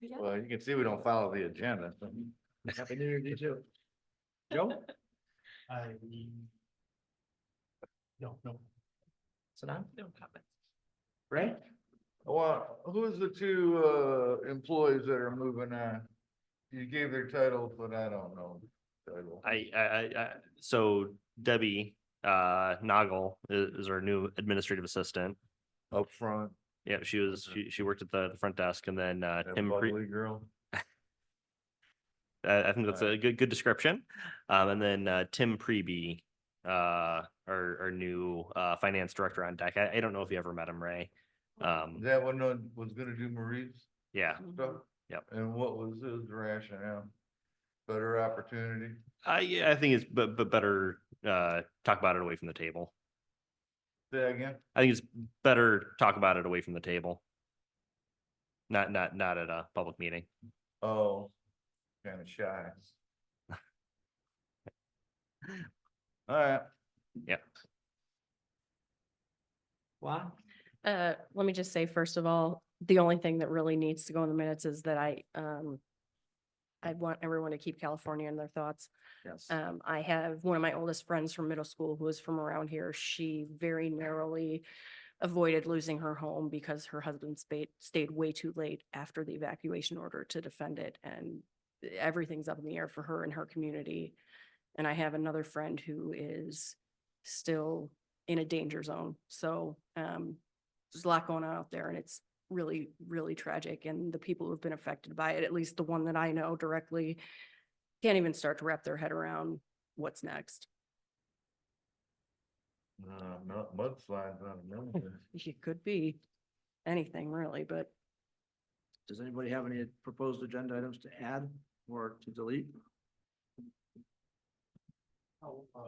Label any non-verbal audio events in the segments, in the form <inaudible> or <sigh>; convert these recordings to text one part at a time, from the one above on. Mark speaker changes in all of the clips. Speaker 1: Yeah.
Speaker 2: Well, you can see we don't follow the agenda. so.
Speaker 3: Happy New Year to you too. Joe? <laughs> I. No, no. Sanam?
Speaker 1: No comments.
Speaker 3: Ray?
Speaker 2: Well, who's the two uh employees that are moving on? You gave their titles, but I don't know. the title.
Speaker 4: I, I, I, I- so Debbie, uh, Noggle is, is our new administrative assistant.
Speaker 2: Up front,
Speaker 4: Yeah, she was, she, she worked at the, the front desk and then, uh,
Speaker 2: Mm-hmm. that
Speaker 4: Tim, Cre-
Speaker 2: bubbly girl.
Speaker 4: uh, I think that's
Speaker 2: Alright.
Speaker 4: a good, good description. Um, and then, uh, Tim Preby, uh, our, our new, uh, finance director on deck. I, I don't know if you ever met him, Ray.
Speaker 2: Is
Speaker 4: Um,
Speaker 2: That one that was gonna do Marie's
Speaker 4: yeah,
Speaker 2: stuff?
Speaker 4: Yep.
Speaker 2: And what was his rationale? Better opportunity?
Speaker 4: I, yeah, I think it's, but, but better, uh, talk about it away from the table.
Speaker 2: Say that again?
Speaker 4: I think it's better talk about it away from the table. Not, not, not at a public meeting.
Speaker 2: Oh, kinda
Speaker 4: <laughs>
Speaker 2: shy. All right.
Speaker 3: Juan?
Speaker 1: Uh, let me just say, first of all, the only thing that really needs to go in the minutes is that I, um, I want everyone to keep California in their thoughts.
Speaker 3: Yes.
Speaker 1: Um, I have one of my oldest friends from middle school who is from around here. She very narrowly avoided losing her home because her husband spayed, stayed way too late after the evacuation order to defend it. And everything's up in the air for her and her community. And I have another friend who is still in a danger zone. So, um, there's a lot going on out there and it's really, really tragic. And the people who've been affected by it, at least the one that I know directly, can't even start to wrap their head around what's next.
Speaker 2: No, not mudslides on the mountain.
Speaker 1: It could be anything really, but
Speaker 3: Does anybody have any proposed agenda items to add or to delete? How, uh,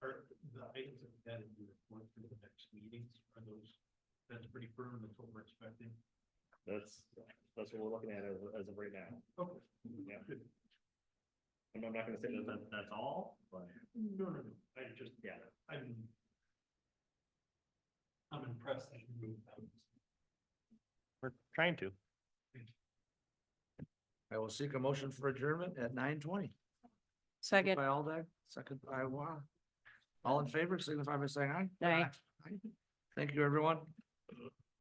Speaker 3: are the items that we added, you report to the next meetings, are those, that's pretty firm, that's what we're expecting?
Speaker 4: That's, that's what we're looking at as, as of right now.
Speaker 3: Okay.
Speaker 4: Yeah. I'm not gonna say that, that- that's all, but.
Speaker 3: No, no, no, I just,
Speaker 4: Yeah.
Speaker 3: I'm. I'm impressed that you moved that.
Speaker 4: We're trying to.
Speaker 3: I will seek a motion for adjournment at nine twenty.
Speaker 1: second,
Speaker 3: By Aldag, second by Wa. All in favor, signify by saying aye.
Speaker 1: Aye.
Speaker 3: Aye. Thank you, everyone.